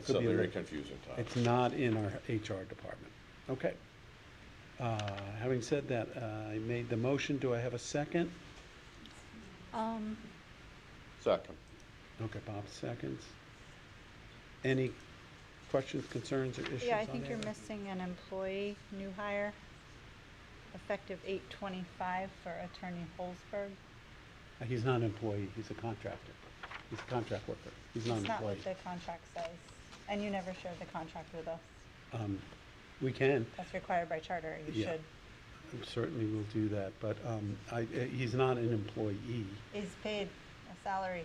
It's a Could be a very lit- confusing time. It's not in our HR department. Okay. Uh, Having said that, uh, I made the motion. Do I have a second? Um, Second. Okay, Bob seconds. Any questions, concerns, or issues on yeah, I that? think you're missing an employee, new hire, effective eight twenty-five for attorney Holzberg. Uh, He's not an employee. He's a contractor. He's a contract worker. He's not an It's not employee. what the contract says, and you never shared the contract with us. Um, We can, That's required by charter, you Yeah. should. certainly we will do that, but um, I, uh, he's not an employee, He's paid a salary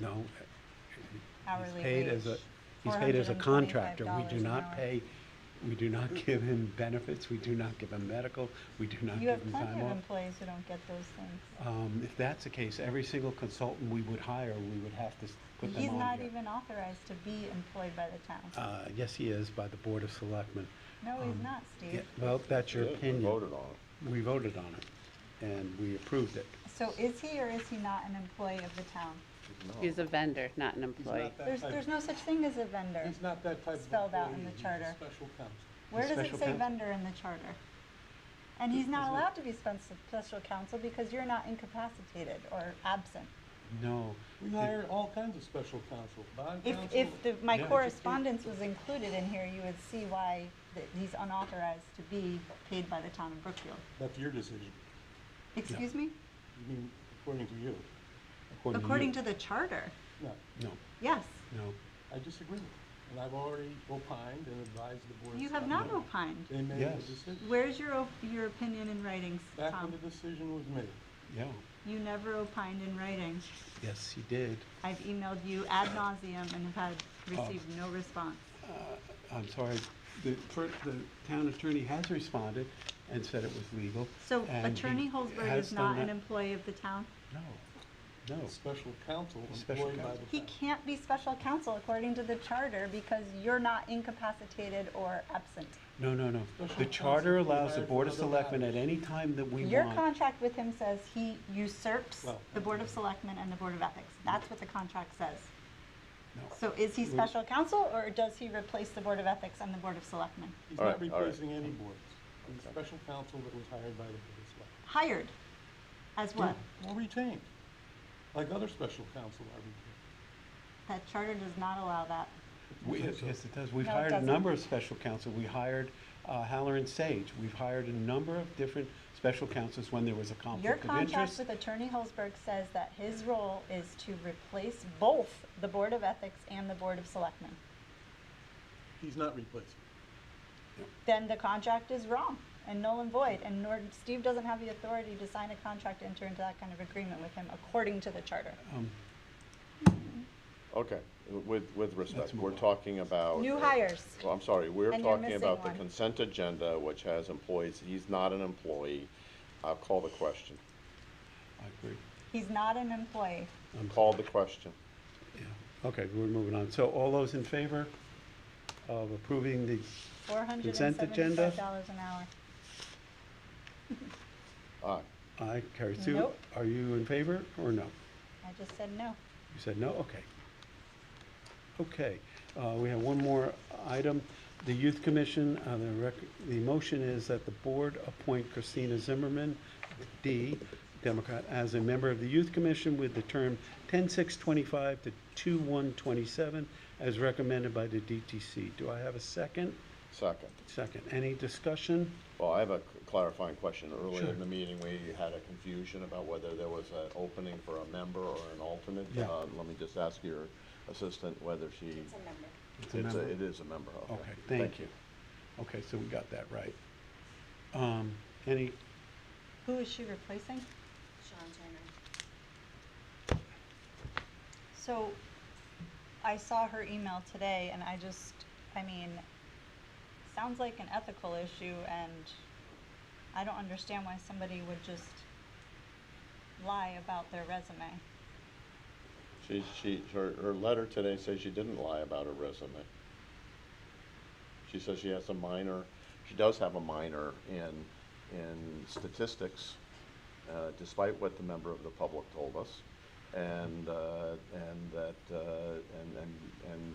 no. hourly He's paid wage. as a, he's paid as a $425 contractor. We do an not hour. pay, we do not give him benefits, we do not give him medical, we do not give You have him plenty time of off. employees who don't get those things. Um, If that's the case, every single consultant we would hire, we would have to s- put them on He's not here. even authorized to be employed by the town. Uh, Yes, he is, by the Board of Selectmen. No, he's um, not, Yeah, Steve. Well, that's your Yeah, we opinion. Voted on it. We voted on it, and we approved it. So is he or is he not an employee of the town? He's a vendor, not an employee. that There's, type- there's no such thing as a vendor. He's not that type of spelled out in the employee. He's a charter. Special counsel. Where does special it say coun- vendor in the charter? And he's not allowed to be spec- special counsel because you're not incapacitated or absent. No. We the- hire all kinds of special counsel, bond If, counsel. if the, my Yeah. correspondence was included in here, you would see why th- he's unauthorized to be paid by the town of Brookfield. That's your decision. Excuse me? You mean, according to you. According you. to the charter, No, No, yes. no. I disagree. And I've already opined and advised the board. You have not opined. They made the Yes. decision. Where's your, op- your opinion in writing, Back when Tom? the decision was made. Yeah, You never opined in writing. yes, he did. I've emailed you ad nauseum and have had, received Oh. no response. I'm sorry, the, per- the town attorney has responded and said it was legal. So and he Attorney Holzberg has is not done an that- employee of the town? No, no. Special counsel Special employed by counsel. the He town. can't be special counsel according to the charter because you're not incapacitated or absent. No, no, no. Special The charter counsel allows the required Board for of other Selectmen at matters. any time that we Your want. contract with him says he usurps Well- the Board of Selectmen and the Board of Ethics. That's what the contract says. No. So is he Well- special counsel or does he replace the Board of Ethics and the Board of Selectmen? He's All not right, all right. replacing any boards. He's special counsel that was hired by the board of selectmen. Hired as what? Or retained, like other special counsel are retained. That charter does not allow that. We- think so. Yes, it does. We've No, it hired a doesn't. number of special counsel. We hired uh, Haller and Sage. We've hired a number of different special counsels when there was a Your conflict of contract interest. with Attorney Holzberg says that his role is to replace both the Board of Ethics and the Board of Selectmen. He's not replacing. Then the contract is wrong and null and void, and nor, Steve doesn't have the authority to sign a contract, to enter into that kind of agreement with him according to the charter. Um, Okay, with, with respect, move we're on. talking about. New hires. Well, I'm sorry, we're And you're talking missing about the one. consent agenda, which has employees. He's not an employee. I'll call the question. I agree. He's not an employee. I'm- Call the question. yeah. Okay, we're moving on. So all those in favor of approving the Four hundred and Consent agenda? seventy-five dollars an hour. Aye. Aye, carries two. Nope. Are you in favor or no? I just said no. You said no, okay. Okay, uh, we have one more item. The Youth Commission, uh, the rec, the motion is that the board appoint Christina Zimmerman, D, Democrat, as a member of the Youth Commission with the term ten-six-twenty-five to two-one-twenty-seven, as recommended by the DTC. Do I have a second? Second. Second. Any discussion? Well, I have a clarifying question. Earlier Sure. in the meeting, we had a confusion about whether there was an opening for a member or an alternate. Yeah. Uh, Let me just ask your assistant whether she. It's a member. It's a member. It is a member, okay. Okay, thank you. Okay, so we got that right. Um, any, Who is she replacing? Sean Turner. So I saw her email today and I just, I mean, sounds like an ethical issue and I don't understand why somebody would just lie about their resume. She, she, her, her letter today says she didn't lie about her resume. She says she has a minor, she does have a minor in, in statistics, uh, despite what the member of the public told us. and, uh, and that, uh, and, and, and